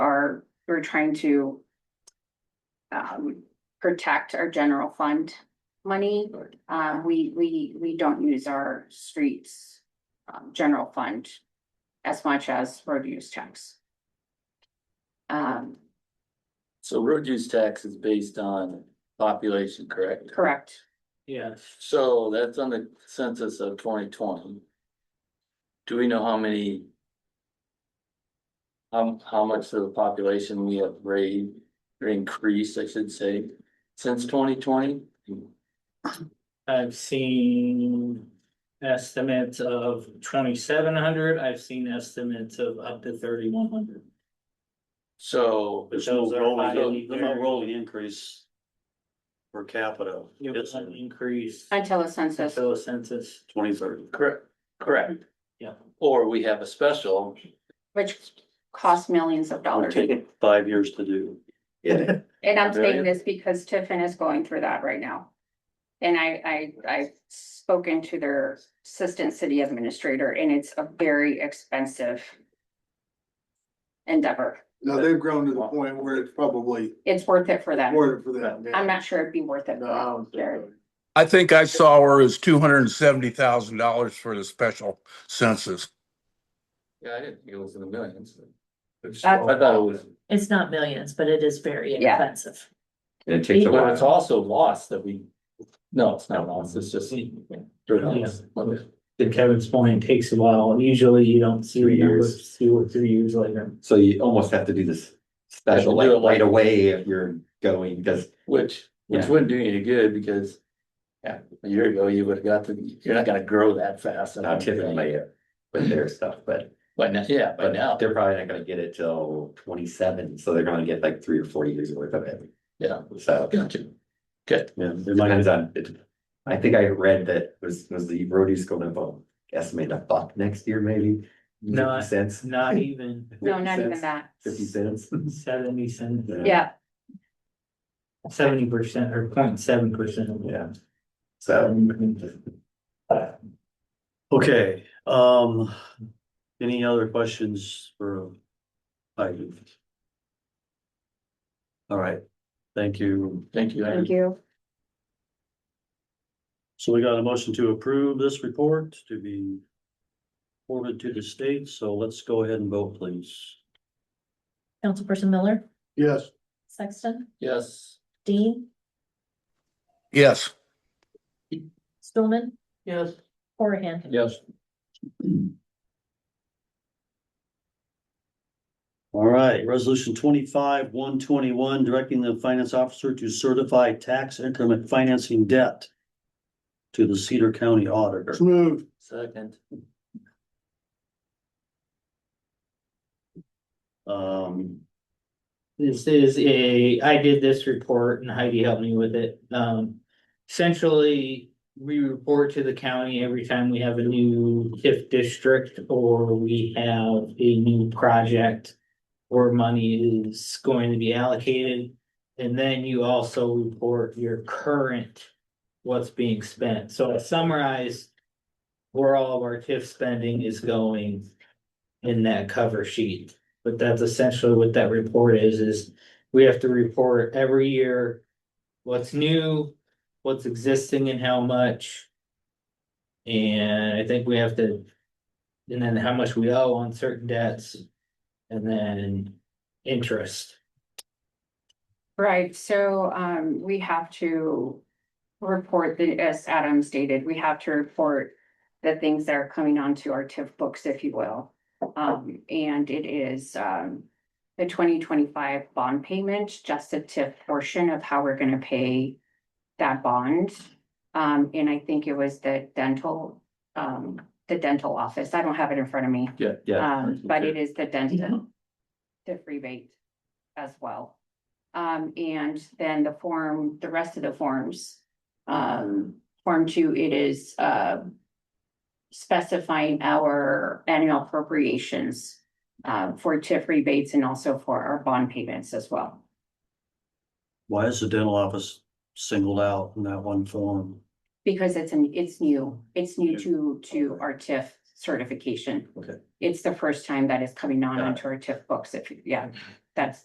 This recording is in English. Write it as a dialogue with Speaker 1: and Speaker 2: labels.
Speaker 1: we're trying to. Um, protect our general fund money. Uh, we, we, we don't use our streets, um, general fund. As much as road use tax. Um,
Speaker 2: So road use tax is based on population, correct?
Speaker 1: correct,
Speaker 3: Yes.
Speaker 2: So that's on the census of twenty twenty. Do we know how many? Um, how much of the population we have raised or increased, I should say, since twenty twenty?
Speaker 3: I've seen estimates of twenty-seven hundred, I've seen estimates of up to thirty-one hundred.
Speaker 2: So.
Speaker 4: There's no
Speaker 3: Those are highly
Speaker 4: rolling, there's no
Speaker 3: variable.
Speaker 4: rolling increase. Per capita,
Speaker 3: It was
Speaker 4: it's
Speaker 3: an increase
Speaker 1: until the census,
Speaker 3: until the census,
Speaker 4: twenty thirty.
Speaker 2: Correct, correct.
Speaker 3: Yeah.
Speaker 2: Or we have a special.
Speaker 1: which costs millions of
Speaker 4: It'll
Speaker 1: dollars.
Speaker 4: take five years to do.
Speaker 2: Yeah.
Speaker 1: And I'm saying
Speaker 2: Right.
Speaker 1: this because Tiffin is going through that right now. And I, I, I've spoken to their assistant city administrator and it's a very expensive. Endeavor.
Speaker 5: Now they've grown to the point where it's probably
Speaker 1: It's worth it for them.
Speaker 5: worth it for them.
Speaker 1: I'm not sure it'd be worth it. for
Speaker 5: No, I
Speaker 1: them,
Speaker 5: don't think
Speaker 1: Jared.
Speaker 5: so.
Speaker 6: I think I saw where it was two hundred and seventy thousand dollars for the special census.
Speaker 2: Yeah, I didn't think it was in the millions. I
Speaker 6: That's-
Speaker 2: thought it was,
Speaker 7: It's not millions, but it is very
Speaker 1: Yeah.
Speaker 7: expensive.
Speaker 8: It takes a
Speaker 2: but it's
Speaker 8: while.
Speaker 2: also lost that we, no, it's not lost, it's just. Okay.
Speaker 3: to Kevin's point, it takes a while, usually you don't see the
Speaker 8: Three years.
Speaker 3: numbers two or three years later.
Speaker 8: So you almost have to do this special
Speaker 2: Have
Speaker 8: like
Speaker 2: to do it
Speaker 8: right
Speaker 2: like-
Speaker 8: away if you're going, because
Speaker 2: Which, which
Speaker 8: Yeah.
Speaker 2: wouldn't do you any good because, yeah, a year ago, you would have got the, you're not gonna grow that fast. I
Speaker 8: now
Speaker 2: don't
Speaker 8: Tiffany
Speaker 2: think.
Speaker 8: may have with their stuff, but.
Speaker 2: By now, yeah, by
Speaker 8: But
Speaker 2: now,
Speaker 8: They're probably not gonna get it till twenty-seven, so they're gonna get like three or four years worth of it,
Speaker 2: yeah,
Speaker 8: so.
Speaker 2: gotcha. Good,
Speaker 4: Yeah, it might,
Speaker 8: Depends on, it, I think I read that was, was the road use going up, estimate a buck next year maybe?
Speaker 3: No,
Speaker 8: Fifty Cents?
Speaker 3: Not even
Speaker 1: No,
Speaker 8: 50
Speaker 1: not even
Speaker 8: cents?
Speaker 1: that.
Speaker 8: Fifty cents?
Speaker 3: seventy cents,
Speaker 1: Yeah,
Speaker 3: seventy percent or 0.7 percent.
Speaker 8: Yeah. So,
Speaker 4: okay, um, any other questions for? Heidi? All right, thank you.
Speaker 2: thank you.
Speaker 1: thank you.
Speaker 4: So we got a motion to approve this report to be. Forwarded to the state, so let's go ahead and vote, please.
Speaker 7: Councilperson Miller,
Speaker 5: Yes,
Speaker 7: Sexton,
Speaker 2: Yes,
Speaker 7: Dean,
Speaker 6: Yes.
Speaker 7: Stulman,
Speaker 3: Yes.
Speaker 7: Horahan.
Speaker 2: yes.
Speaker 4: All right, resolution twenty-five, one twenty-one, directing the finance officer to certify tax increment financing debt. To the Cedar County Auditor.
Speaker 5: it's moved.
Speaker 2: Second,
Speaker 4: Um,
Speaker 3: This is a, I did this report and Heidi helped me with it. Um, essentially, we report to the county every time we have a new TIF district or we have a new project or money is going to be allocated. And then you also report your current, what's being spent. So I summarized where all of our TIF spending is going in that cover sheet. But that's essentially what that report is, is we have to report every year. What's new, what's existing and how much. And I think we have to, and then how much we owe on certain debts. And then interest.
Speaker 1: Right, so um we have to report the, as Adam stated, we have to report the things that are coming onto our TIF books, if you will. Um, and it is um the twenty twenty-five bond payment, just a TIF portion of how we're gonna pay that bond. Um, and I think it was the dental, um, the dental office. I don't have it in front of me.
Speaker 2: yeah,
Speaker 8: yeah.
Speaker 1: Um, but it is the dental.
Speaker 4: Mm-hmm.
Speaker 1: The rebate as well. Um, and then the form, the rest of the forms. Um, form two, it is, uh. Specifying our annual appropriations, uh, for TIF rebates and also for our bond payments as well.
Speaker 4: why is the dental office singled out in that one form?
Speaker 1: Because it's an, it's new, it's new to, to our TIF certification.
Speaker 4: Okay.
Speaker 1: It's the first time that is coming on
Speaker 4: Got it.
Speaker 1: onto our TIF books, if, you- yeah, that's,